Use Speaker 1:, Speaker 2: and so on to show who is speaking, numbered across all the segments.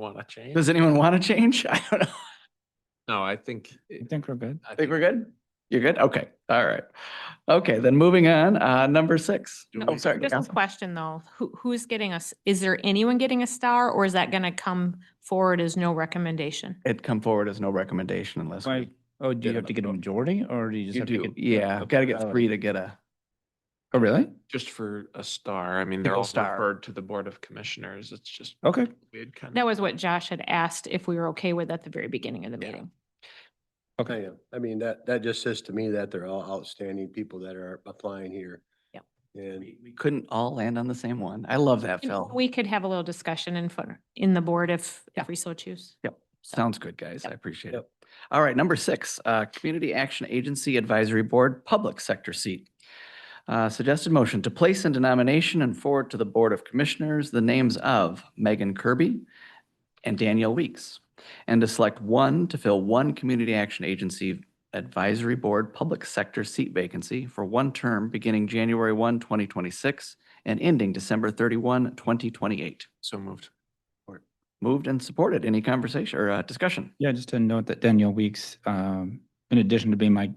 Speaker 1: Want to change?
Speaker 2: Does anyone want to change? I don't know.
Speaker 1: No, I think.
Speaker 3: I think we're good.
Speaker 1: I
Speaker 2: Think
Speaker 1: think-
Speaker 2: we're good? You're good? Okay, all right. Okay, then moving on, uh, number six. Oh, sorry.
Speaker 4: Just a
Speaker 2: Council.
Speaker 4: question though, who, who's getting us, is there anyone getting a star or is that gonna come forward as no recommendation?
Speaker 2: It come forward as no recommendation unless. we-
Speaker 3: Why, oh, do
Speaker 2: Get
Speaker 3: you have to get a
Speaker 2: another vote.
Speaker 3: majority or do Uh, you just
Speaker 2: You
Speaker 3: have to
Speaker 2: do,
Speaker 3: get?
Speaker 2: yeah, gotta get three to get a. Oh, really?
Speaker 1: Just for a star. I mean,
Speaker 2: Single
Speaker 1: they're all
Speaker 2: star.
Speaker 1: referred to the Board of Commissioners. It's just
Speaker 3: Okay,
Speaker 1: weird kind of.
Speaker 4: That was what Josh had asked if we were okay with at the very beginning of the
Speaker 1: Yeah.
Speaker 4: meeting.
Speaker 5: I
Speaker 3: okay.
Speaker 5: am. I mean, that, that just says to me that they're all outstanding people that are applying here.
Speaker 4: Yep.
Speaker 5: And
Speaker 2: We we couldn't all land on the same one. I love that,
Speaker 4: And
Speaker 2: Phil.
Speaker 4: We could have a little discussion in front, in the board if,
Speaker 2: Yeah.
Speaker 4: if we so choose.
Speaker 2: Sounds good, guys. I
Speaker 4: Yep.
Speaker 2: appreciate it.
Speaker 5: Yep.
Speaker 2: All right, number six, uh, Community Action Agency Advisory Board Public Sector Seat. Uh, Suggested motion to place into nomination and forward to the Board of Commissioners the names of Megan Kirby and Danielle Weeks, and to select one to fill one Community Action Agency Advisory Board Public Sector Seat vacancy for one term beginning January 1, 2026, and ending December 31, 2028.
Speaker 1: So moved.
Speaker 2: Moved and supported. Any conversation or uh, discussion?
Speaker 3: Yeah, just to note that Danielle Weeks, um, in addition to being my,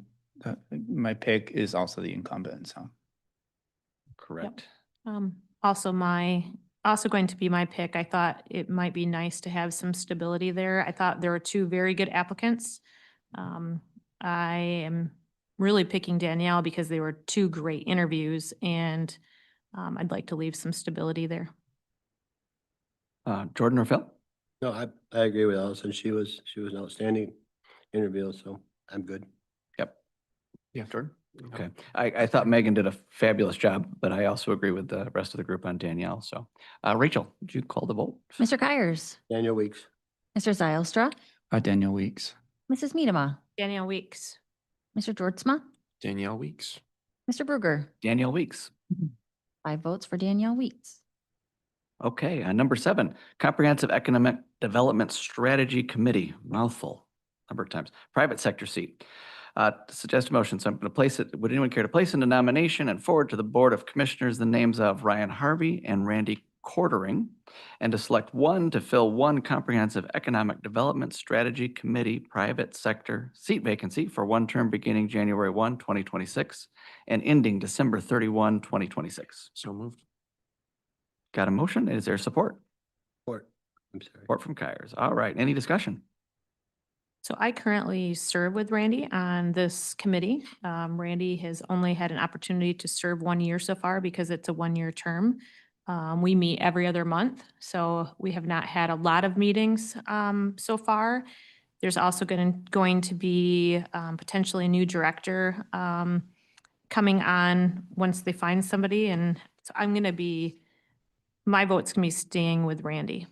Speaker 3: uh, my pick is also the incumbent, so.
Speaker 2: Correct.
Speaker 4: Um, also my, also going to be my pick. I thought it might be nice to have some stability there. I thought there were two very good applicants. Um, I am really picking Danielle because they were two great interviews and um, I'd like to leave some stability there.
Speaker 2: Uh, Jordan or Phil?
Speaker 5: no, I, I agree with Allison. She was, she was an outstanding interview, so I'm good.
Speaker 1: Yeah.
Speaker 2: Jordan.
Speaker 1: Yeah.
Speaker 2: Okay. I, I thought Megan did a fabulous job, but I also agree with the rest of the group on Danielle. So, uh, Rachel, did you call the vote?
Speaker 6: Mr. Kiers,
Speaker 5: Daniel Weeks,
Speaker 6: Mr. Zylstra,
Speaker 3: Uh, Danielle Weeks,
Speaker 6: Mrs. Medema,
Speaker 4: Danielle Weeks.
Speaker 6: Mr. Georgezma,
Speaker 1: Danielle Weeks.
Speaker 6: Mr. Bruger.
Speaker 2: Danielle Weeks.
Speaker 6: Five votes for Danielle Weeks.
Speaker 2: Okay. Uh, number seven, Comprehensive Economic Development Strategy Committee, mouthful, number of times, private sector seat. Uh, suggest motion. So I'm going to place it. Would anyone care to place into nomination and forward to the Board of Commissioners the names of Ryan Harvey and Randy Quartering? And to select one to fill one comprehensive economic development strategy committee private sector seat vacancy for one term beginning January 1, 2026 and ending December 31, 2026.
Speaker 1: So moved.
Speaker 2: Got a motion? Is there support?
Speaker 5: Court, I'm sorry.
Speaker 2: Support from Kyers. All right. Any discussion?
Speaker 4: So I currently serve with Randy on this committee. Um, Randy has only had an opportunity to serve one year so far because it's a one-year term. Um, we meet every other month, so we have not had a lot of meetings, um, so far. There's also going, going to be, um, potentially a new director, um, coming on once they find somebody. And so I'm going to be, my vote's going to be staying with Randy.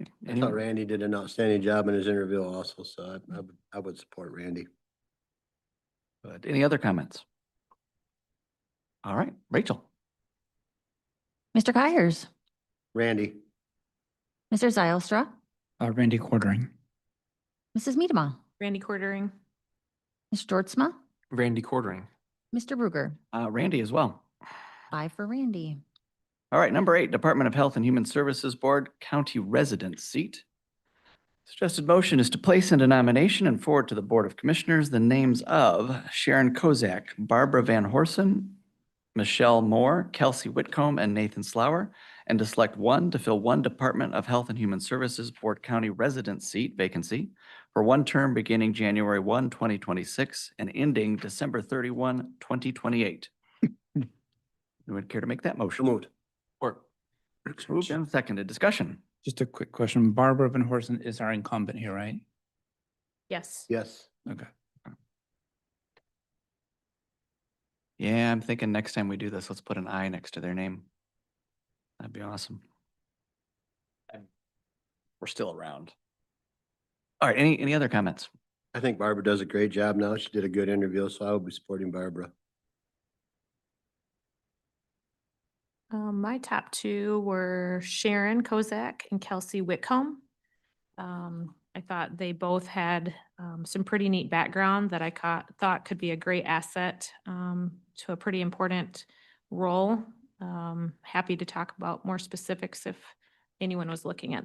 Speaker 5: I thought
Speaker 2: Anyone?
Speaker 5: Randy did an outstanding job in his interview also, so I, I would, I would support Randy.
Speaker 2: Good. Any other comments? All right. Rachel?
Speaker 6: Mr. Kiers,
Speaker 5: Randy,
Speaker 6: Mr. Zylstra,
Speaker 3: uh, Randy Quartering,
Speaker 6: Mrs. Medema,
Speaker 4: Randy Quartering?
Speaker 6: Mr. Georgezma,
Speaker 1: Randy Quartering.
Speaker 6: Mr. Bruger.
Speaker 2: Uh, Randy as well.
Speaker 6: Five for Randy.
Speaker 2: All right, number eight, Department of Health and Human Services Board County Resident Seat. Suggested motion is to place into nomination and forward to the Board of Commissioners the names of Sharon Kozak, Barbara Van Horsen, Michelle Moore, Kelsey Whitcomb, and Nathan Slower, and to select one to fill one Department of Health and Human Services Board County Resident Seat vacancy for one term beginning January 1, 2026, and ending December 31, 2028. Anyone care to make that motion?
Speaker 5: so moved.
Speaker 1: Or.
Speaker 2: Moved and seconded. Discussion.
Speaker 3: just a quick question. Barbara Van Horsen is our incumbent here, right?
Speaker 4: Yes.
Speaker 5: Yes,
Speaker 3: Okay.
Speaker 2: Yeah, I'm thinking next time we do this, let's put an I next to their name. That'd be awesome. We're still around. All right, any, any other comments?
Speaker 5: I think Barbara does a great job now. She did a good interview, so I would be supporting Barbara.
Speaker 4: Um, my top two were Sharon Kozak and Kelsey Whitcomb. Um, I thought they both had, um, some pretty neat background that I caught, thought could be a great asset, um, to a pretty important role. Um, happy to talk about more specifics if anyone was looking at